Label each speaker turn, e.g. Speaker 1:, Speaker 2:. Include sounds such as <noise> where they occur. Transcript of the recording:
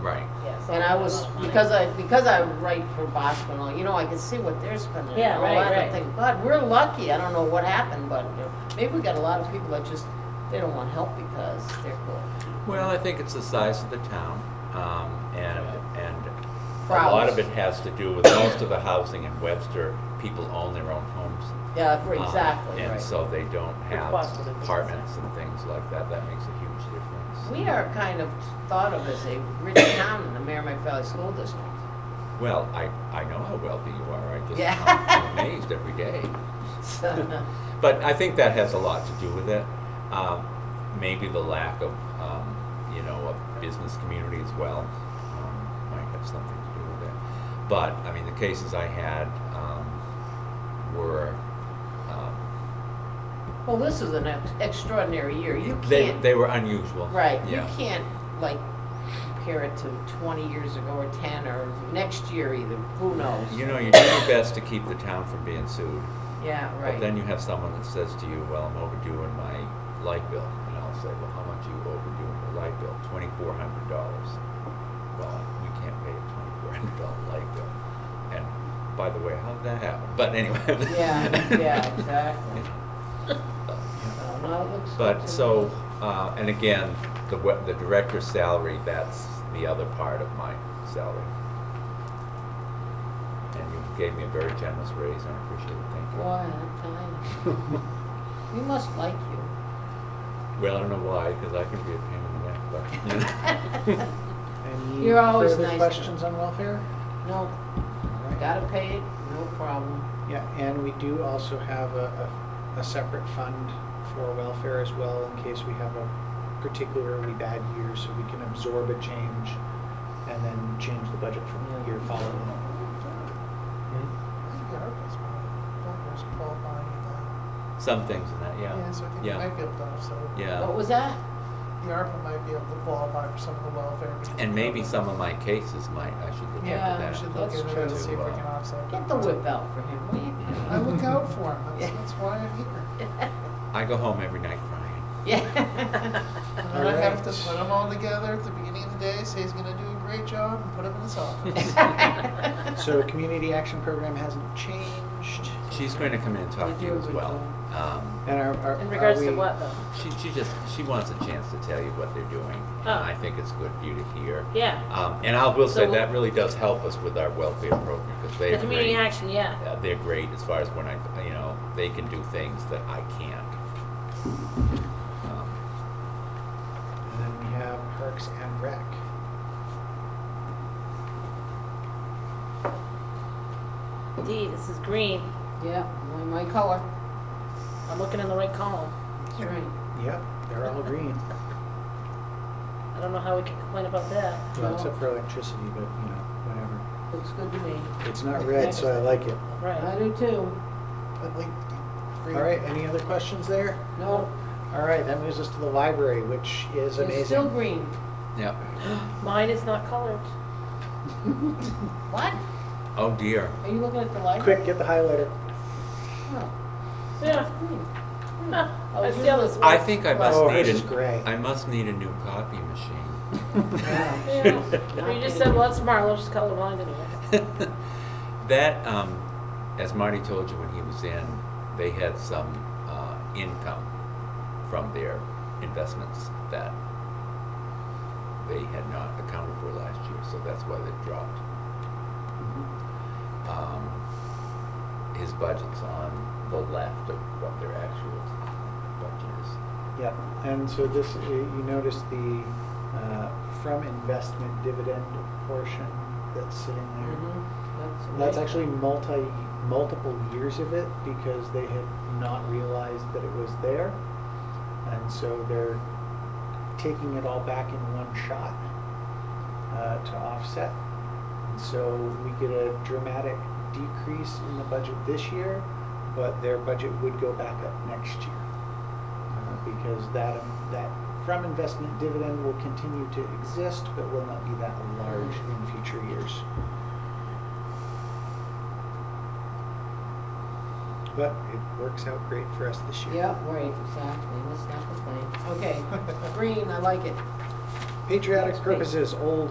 Speaker 1: Right.
Speaker 2: Yes.
Speaker 3: And I was, <laughs> because I, because I write for Bosco and all, you know, I could see what they're spending.
Speaker 2: Yeah,
Speaker 3: and all
Speaker 2: right,
Speaker 3: that, and
Speaker 2: right.
Speaker 3: think, God, we're lucky, I don't know what happened, but maybe we got a lot of people that just, they don't want help because they're poor.
Speaker 1: Well, I think it's the size of the town, um, and, and a lot
Speaker 3: Crowds.
Speaker 1: of it has to do with most of the housing in Webster, people own their own homes.
Speaker 3: Yeah, for-
Speaker 1: um,
Speaker 3: exactly,
Speaker 1: And
Speaker 3: right.
Speaker 1: so they don't have
Speaker 2: possible to do
Speaker 1: apartments and things like that, that makes a huge difference.
Speaker 3: We are kind of thought of as a rich town in the Merrimack Valley School District. <laughs>
Speaker 1: Well, I, I know how wealthy you are, I just,
Speaker 3: Yeah.
Speaker 1: I'm amazed every day.
Speaker 3: <laughs> So,
Speaker 1: But I think that has a lot to do with it. Um, maybe the lack of, um, you know, a business community as well um, might have something to do with it. But I mean, the cases I had um, were um,
Speaker 3: Well, this is an ex- extraordinary year, you
Speaker 1: they,
Speaker 3: can't,
Speaker 1: they were unusual.
Speaker 3: right, you
Speaker 1: Yeah.
Speaker 3: can't, like, compare it to twenty years ago or ten or next year either, who knows?
Speaker 1: You know, you do your best to keep the town from being sued,
Speaker 3: Yeah, right.
Speaker 1: but then you have someone that says to you, "Well, I'm overdue in my light bill," and I'll say, "Well, how much are you overdue in your light bill? Twenty-four hundred dollars." Well, we can't pay a twenty-four hundred dollar light bill. And by the way, how did that happen? But anyway.
Speaker 3: Yeah,
Speaker 1: <laughs>
Speaker 3: yeah, exactly. So, no, it looks good
Speaker 1: But,
Speaker 3: to
Speaker 1: so,
Speaker 3: me.
Speaker 1: uh, and again, the, we- the director's salary, that's the other part of my salary. And you gave me a very generous raise, and I appreciate it, thank you.
Speaker 3: Boy, I'm telling you, we must like
Speaker 1: <laughs>
Speaker 3: you.
Speaker 1: Well, I don't know why, because I can be a pain in the neck, but, you know.
Speaker 4: <laughs>
Speaker 5: Any
Speaker 3: You're always
Speaker 5: further
Speaker 3: nice.
Speaker 5: questions on welfare?
Speaker 3: No,
Speaker 5: All right.
Speaker 3: gotta pay it, no problem.
Speaker 5: Yeah, and we do also have a, a, a separate fund for welfare as well in case we have a particularly bad year, so we can absorb a change and then change the budget from the year following.
Speaker 4: I think ARPA's probably, ARPA's qualifying in that.
Speaker 1: Some things in that, yeah.
Speaker 4: Yeah, so I think you
Speaker 1: Yeah.
Speaker 4: might be able to offset. it.
Speaker 1: Yeah.
Speaker 3: What was that?
Speaker 4: The ARPA might be able to qualify for some of the welfare. because
Speaker 1: And maybe
Speaker 4: ARPA-
Speaker 1: some of
Speaker 4: <laughs>
Speaker 1: my cases might, I should look into
Speaker 3: Yeah,
Speaker 1: that.
Speaker 4: We should look
Speaker 3: that's
Speaker 4: into it
Speaker 3: true.
Speaker 4: and see if we can
Speaker 1: Uh,
Speaker 4: offset.
Speaker 3: Get
Speaker 4: that.
Speaker 3: the whip out for him, will you?
Speaker 4: I look out for him, that's,
Speaker 3: Yeah.
Speaker 4: that's why I'm here.
Speaker 3: <laughs>
Speaker 1: I go home every night crying.
Speaker 4: <laughs>
Speaker 1: <laughs>
Speaker 3: Yeah.
Speaker 4: And then I have to
Speaker 5: Alright.
Speaker 4: put them all together at the beginning of the day, say he's gonna do a great job, and put him in
Speaker 3: <laughs>
Speaker 4: his office.
Speaker 5: So community action program hasn't changed.
Speaker 1: She's going to come in and talk to you as well. Um,
Speaker 5: And are, are,
Speaker 2: In
Speaker 5: are
Speaker 2: regards
Speaker 5: we?
Speaker 2: to what though?
Speaker 1: She, she just, she wants a chance to tell you what they're doing. and
Speaker 2: Oh.
Speaker 1: I think it's good for you to hear.
Speaker 2: Yeah,
Speaker 1: Um, and I will say,
Speaker 2: So-
Speaker 1: that really does help us with our welfare program, because
Speaker 2: the
Speaker 1: they're
Speaker 2: community
Speaker 1: great.
Speaker 2: action, yeah.
Speaker 1: Uh, They're great as far as when I, you know, they can do things that I can't. Um,
Speaker 5: And then we have parks and rec.
Speaker 2: D, this is green.
Speaker 3: Yeah, my, my color,
Speaker 2: I'm looking in the right column.
Speaker 3: that's right.
Speaker 5: Yep, they're all <laughs> green,
Speaker 2: I don't know how we can complain about that.
Speaker 5: well, except for electricity, but you know, whatever.
Speaker 3: Looks good to me.
Speaker 5: It's not red, so I like it.
Speaker 3: I
Speaker 2: Right.
Speaker 3: do too.
Speaker 4: I'd like to be
Speaker 5: All
Speaker 4: great.
Speaker 5: right, any other questions there?
Speaker 3: No,
Speaker 5: All right, that moves us to the library, which is amazing.
Speaker 3: it's still green.
Speaker 1: Yep.
Speaker 2: <gasps> Mine is not colored.
Speaker 3: What?
Speaker 1: Oh dear.
Speaker 3: Are you looking at the light?
Speaker 5: <laughs> Quick, get the highlighter.
Speaker 3: Oh,
Speaker 2: Yeah.
Speaker 3: green. Oh,
Speaker 2: <laughs> I
Speaker 3: you
Speaker 2: see how
Speaker 1: <laughs>
Speaker 2: this
Speaker 3: look-
Speaker 1: I
Speaker 2: works.
Speaker 1: think I must
Speaker 5: Oh,
Speaker 1: need
Speaker 5: hers is
Speaker 1: a,
Speaker 5: gray.
Speaker 1: I must need a new copy machine.
Speaker 2: Yeah. You just said, well, it's Marlowe's color blind anyway.
Speaker 1: <laughs> That, um, as Marty told you when he was in, they had some, uh, income from their investments that they had not accounted for last year, so that's why they dropped. Um, his budget's on the left of what their actual budget is.
Speaker 5: Yep, and so this, you you notice the uh, from investment dividend portion that's sitting
Speaker 2: Mm-hmm.
Speaker 5: there.
Speaker 3: Mhm,
Speaker 5: Mm-hmm. That's
Speaker 3: right.
Speaker 5: actually multi, multiple years of it because they had not realized that it was there. And so they're taking it all back in one shot uh, to offset. And so we get a dramatic decrease in the budget this year, but their budget would go back up next year. Uh, Because that, that from investment dividend will continue to exist, but will not be that large in future years. But it works out great for us this year.
Speaker 3: Yeah, right, exactly, <laughs> let's not complain. Okay, green, I like it.
Speaker 5: Patriotic
Speaker 3: That's great.
Speaker 5: purposes, old